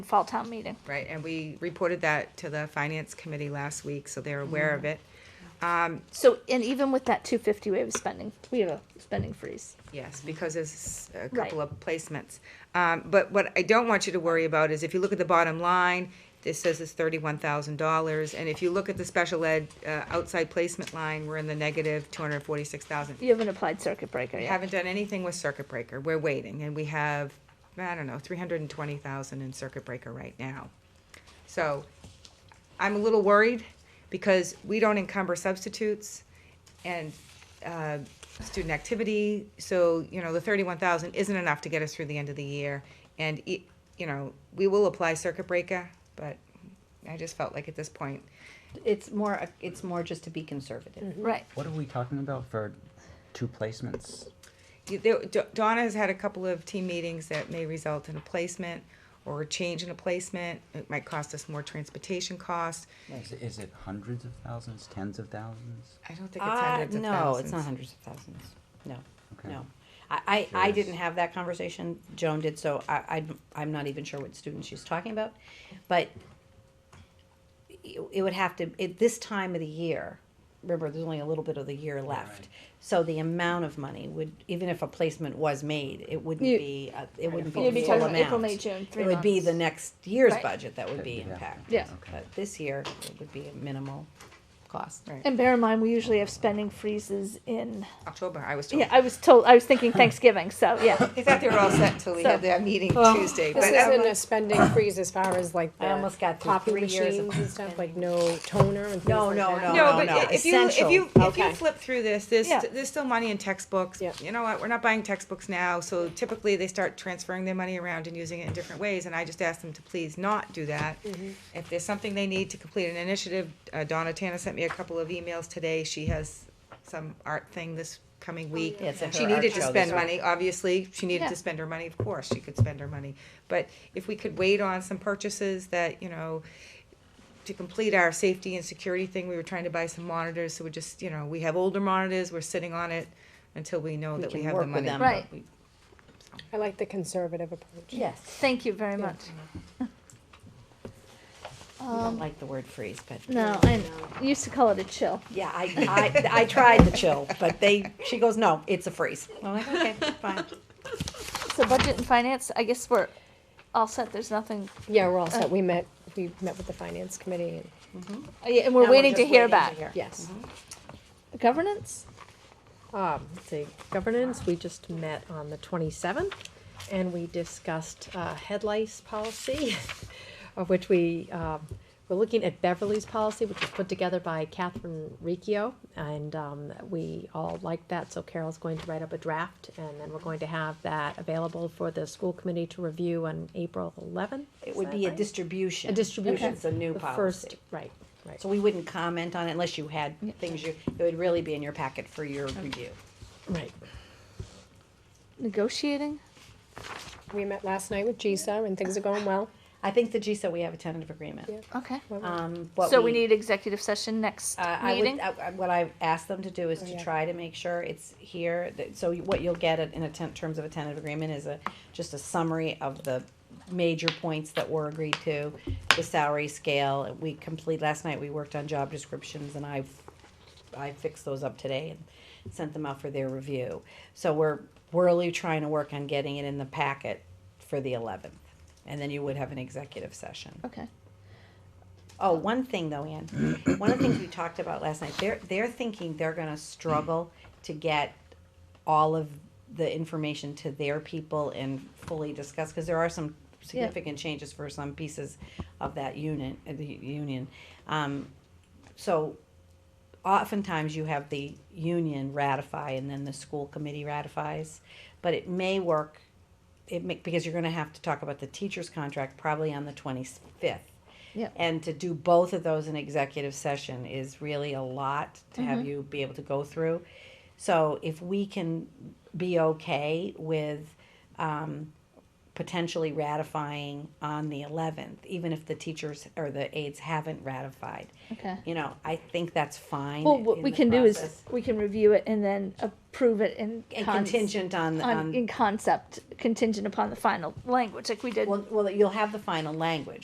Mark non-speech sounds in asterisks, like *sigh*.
fall town meeting. right? And we reported that to the finance committee last week, so they're aware of it. So, and even with that two fifty, we have a spending, we have a spending freeze. Yes, because there's a couple of placements. Um, but what I don't want you to worry about is if you look at the bottom line, this says it's thirty-one thousand dollars, and if you look at the special ed, uh, outside placement line, we're in the negative two hundred and forty-six thousand. You haven't applied circuit breaker We yet. haven't done anything with circuit breaker, we're waiting, and we have, I don't know, three hundred and twenty thousand in circuit breaker right now. So, I'm a little worried, because we don't encumber substitutes and, uh, student activity, so, you know, the thirty-one thousand isn't enough to get us through the end of the year. And, e- you know, we will apply circuit breaker, but I just felt like at this point, It's more, it's more just to be conservative. Right. What are we talking about for two placements? You- there- Do- Donna has had a couple of team meetings that may result in a placement or a change in a placement. It might cost us more transportation costs. Is it, is it hundreds of thousands, tens of thousands? I don't think it's Uh, hundreds of no, it's not thousands. hundreds of thousands, no, Okay. no. I, I, I Yes. didn't have that conversation, Joan did, so I, I, I'm not even sure what student she's talking about. But it it would have to, at this time of the year, remember, there's only a little bit of the year left. right. So the amount of money would, even if a placement was made, it wouldn't You- be, uh, it wouldn't be You'd the be full talking amount. April, May, June, three It would be the months. next year's Right. budget that would be Yeah. impacted. Yeah. Okay. But this year, it would be a minimal cost. Right. And bear in mind, we usually have spending freezes in, October, I was told. yeah, I was told, I was thinking Thanksgiving, so, yeah. They thought they were all set until we had So- that meeting Well, Tuesday, but This I'm isn't a like, spending freeze as far as like I the almost got through coffee three years of machines and stuff, like no toner and things No, like no, that. no. no, but no, i- if you, if you, essential. if you Okay. flip through this, there's, Yeah. there's still money in textbooks. Yeah. You know what, we're not buying textbooks now, so typically they start transferring their money around and using it in different ways, and I just asked them to please not do that. If there's something they need to complete an initiative, uh, Donna Tana sent me a couple of emails today, she has some art thing this coming week. Yeah, it's at She her art needed to show spend this week. money, obviously, she needed Yeah. to spend her money, of course, she could spend her money. But if we could wait on some purchases that, you know, to complete our safety and security thing, we were trying to buy some monitors, so we just, you know, we have older monitors, we're sitting on it until we know We that we can have the work money. with them. but *laughs* Right. I like the conservative approach. Yes. Thank you very much. I don't like the word freeze, but. Um, No, I used to call it a chill. Yeah, *laughs* I, I, I tried the chill, but they, she goes, no, it's a freeze. I'm like, okay, fine. So budget and finance, I guess we're all set, there's nothing, Yeah, we're all set. We met, we met with the finance committee and, uh, yeah, and we're waiting to hear back. yes. Governance? Mm-hmm. Um, let's see, governance, we just met on the twenty-seventh, and we discussed, uh, head lice policy, *laughs* of which we, um, we're looking at Beverly's policy, which was put together by Catherine Riccio, and, um, we all liked that, so Carol's going to write up a draft, and then we're going to have that available for the school committee to review on April eleventh. It would be a distribution. A distribution. It's a new The first- policy. Right, right. So we wouldn't comment on it unless you had things you, it would really be in your packet for your review. Right. Negotiating? We met last night with GISA, and things are going well. I think the G said we have a tentative agreement. Yeah. Okay. Um, what So we need executive session next Uh, I would, meeting? I, I- what I've asked them to do is to yeah. try to make sure it's here, that, so you- what you'll get at- in a ten, terms of a tentative agreement is a, just a summary of the major points that were agreed to, the salary scale, we complete, last night we worked on job descriptions and I've, I fixed those up today and sent them out for their review. So we're, we're really trying to work on getting it in the packet for the eleventh, and then you would have an executive session. Okay. Oh, one thing though, Ann, one of the things we talked about last night, they're, they're thinking they're gonna struggle to get all of the information to their people and fully discuss, cause there are some significant changes for some pieces of that unit, uh, the union. Um, so oftentimes you have the union ratify and then the school committee ratifies, but it may work, it may, because you're gonna have to talk about the teacher's contract probably on the twenty-fifth. Yeah. And to do both of those in executive session is really a lot to have you be able to go through. So if we can be okay with, um, potentially ratifying on the eleventh, even if the teachers or the aides haven't ratified. Okay. You know, I think that's fine. Well, what in we the can do is process. we can review it and then approve it in And cons- contingent on, the- on on, in concept, contingent upon the final language, like we did. well, well, you'll have the final language.